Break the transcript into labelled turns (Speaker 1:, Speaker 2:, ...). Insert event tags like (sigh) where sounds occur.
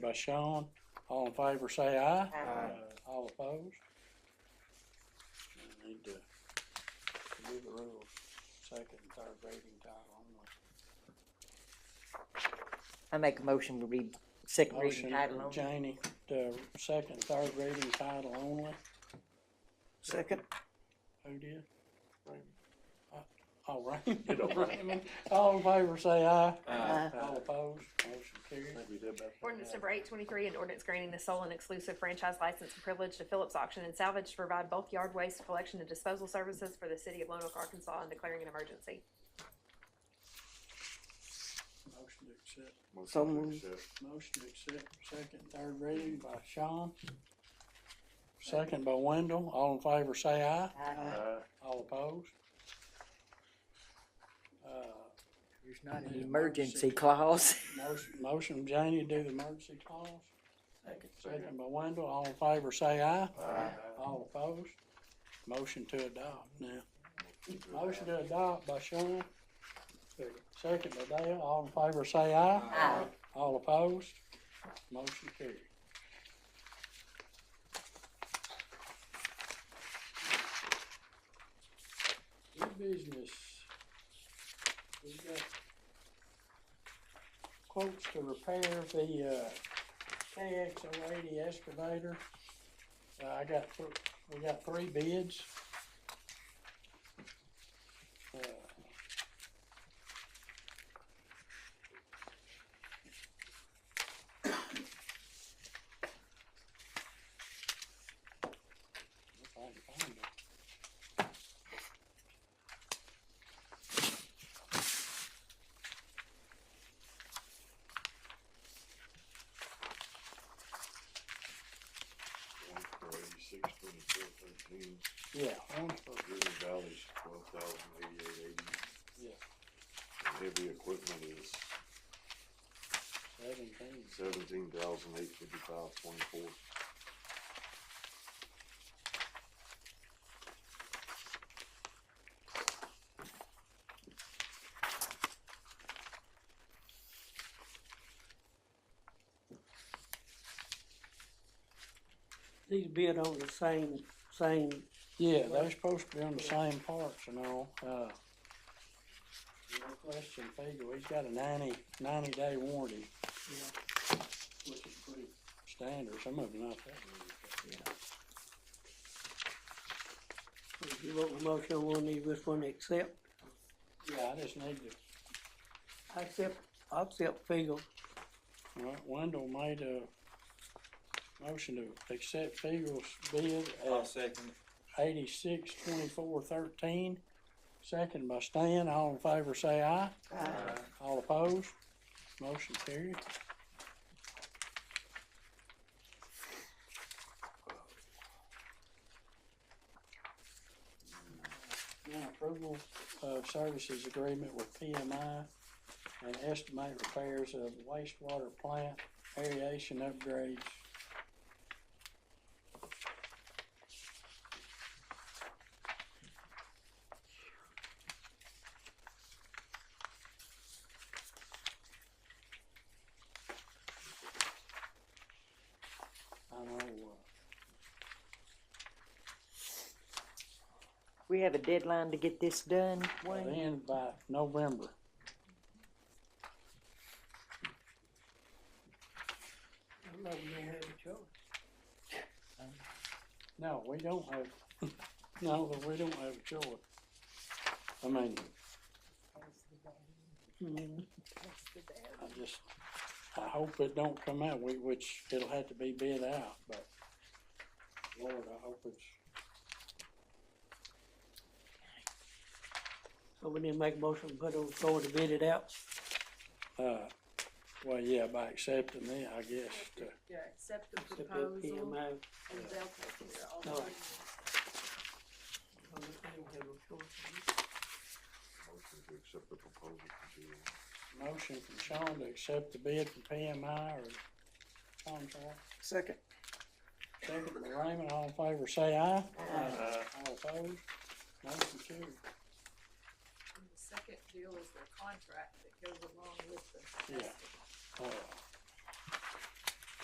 Speaker 1: by Sean. All in favor, say aye.
Speaker 2: Aye.
Speaker 1: All opposed? We Need to give the rules, second and third reading title only.
Speaker 2: I make a motion to read second
Speaker 1: Motion,
Speaker 2: reading title only.
Speaker 1: Janie, to second, and third reading title only.
Speaker 2: Second.
Speaker 1: Who did?
Speaker 3: Raymond.
Speaker 1: Uh, Oh, Raymond, Raymond. All in favor, say aye.
Speaker 2: Aye.
Speaker 1: All opposed? Motion carried.
Speaker 3: Maybe we did that.
Speaker 4: Ordinance number eight twenty-three, an ordinance granting the sole and exclusive franchise license and privilege to Phillips Auction and Salvage to provide bulk yard waste collection and disposal services for the city of Lone Oak, Arkansas, and declaring an emergency.
Speaker 1: Motion to accept.
Speaker 2: So
Speaker 3: Motion to
Speaker 2: moved.
Speaker 3: accept.
Speaker 1: Motion to accept second, and third reading by Sean. Second by Wendell. All in favor, say aye.
Speaker 2: Aye.
Speaker 3: Aye.
Speaker 1: All opposed? Uh,
Speaker 2: There's not
Speaker 1: Need
Speaker 2: an
Speaker 1: a
Speaker 2: emergency
Speaker 1: motion.
Speaker 2: clause.
Speaker 1: motion, motion, Janie, do the emergency clause. Second
Speaker 3: Second.
Speaker 1: by Wendell. All in favor, say aye.
Speaker 3: Aye.
Speaker 1: All opposed? Motion to adopt now. Motion to adopt by Sean. Second by Dale. All in favor, say aye.
Speaker 2: Aye.
Speaker 1: All opposed? Motion carried. New business. We got quotes to repair the, uh, KX oh eighty excavator. Uh, I got, th- we got three bids. Uh, If I can find it.
Speaker 3: One for eighty-six, twenty-four, thirteen,
Speaker 1: Yeah, one for,
Speaker 3: River Valley's twelve thousand eighty-eight eighty.
Speaker 1: Yeah.
Speaker 3: Heavy equipment is
Speaker 1: seventeen.
Speaker 3: seventeen thousand eight fifty-five twenty-four.
Speaker 5: These bid on the same, same,
Speaker 1: Yeah, they're supposed to be on the same parts and all, uh. No question, Fego, he's got a ninety, ninety day warranty. Which is pretty standard, some of them not that many.
Speaker 5: if you vote the motion on one, you just want to accept,
Speaker 1: Yeah, I just need to,
Speaker 5: I accept, I accept Fiegel.
Speaker 1: well, Wendell made a motion to accept Fego's bid
Speaker 6: I'll
Speaker 1: at
Speaker 6: second it.
Speaker 1: eighty-six twenty-four thirteen. Second by Stan, all in favor say aye. All opposed? Motion carried. Now approval of services agreement with PMI and estimate repairs of wastewater plant aeration upgrades. I know, uh,
Speaker 2: We have a deadline to get this done,
Speaker 1: by the
Speaker 2: Wayne?
Speaker 1: end by November.
Speaker 5: I'm not gonna have a choice.
Speaker 1: No, we don't have, (laughs) no, but we don't have a choice. I mean,
Speaker 5: Mhm.
Speaker 1: I just, I hope it don't come out, we, which it'll have to be bid out, but Lord, I hope it's,
Speaker 5: So we need to make a motion, to put on the floor to bid it out,
Speaker 1: uh, well, yeah, by accepting it, I guess, to,
Speaker 7: Yeah, accept the
Speaker 5: except that
Speaker 7: proposal
Speaker 5: PMI.
Speaker 7: and they'll take care of all
Speaker 5: No.
Speaker 7: the.
Speaker 5: I don't have a choice.
Speaker 3: Motion to accept the proposal from GM.
Speaker 1: motion from Sean to accept the bid from PMI or contract.
Speaker 2: Second.
Speaker 1: Second by Raymond, all in favor, say aye.
Speaker 3: Aye.
Speaker 1: All opposed, motion carried.
Speaker 7: And The second deal is their contract that goes along with the.
Speaker 1: Yeah. Uh,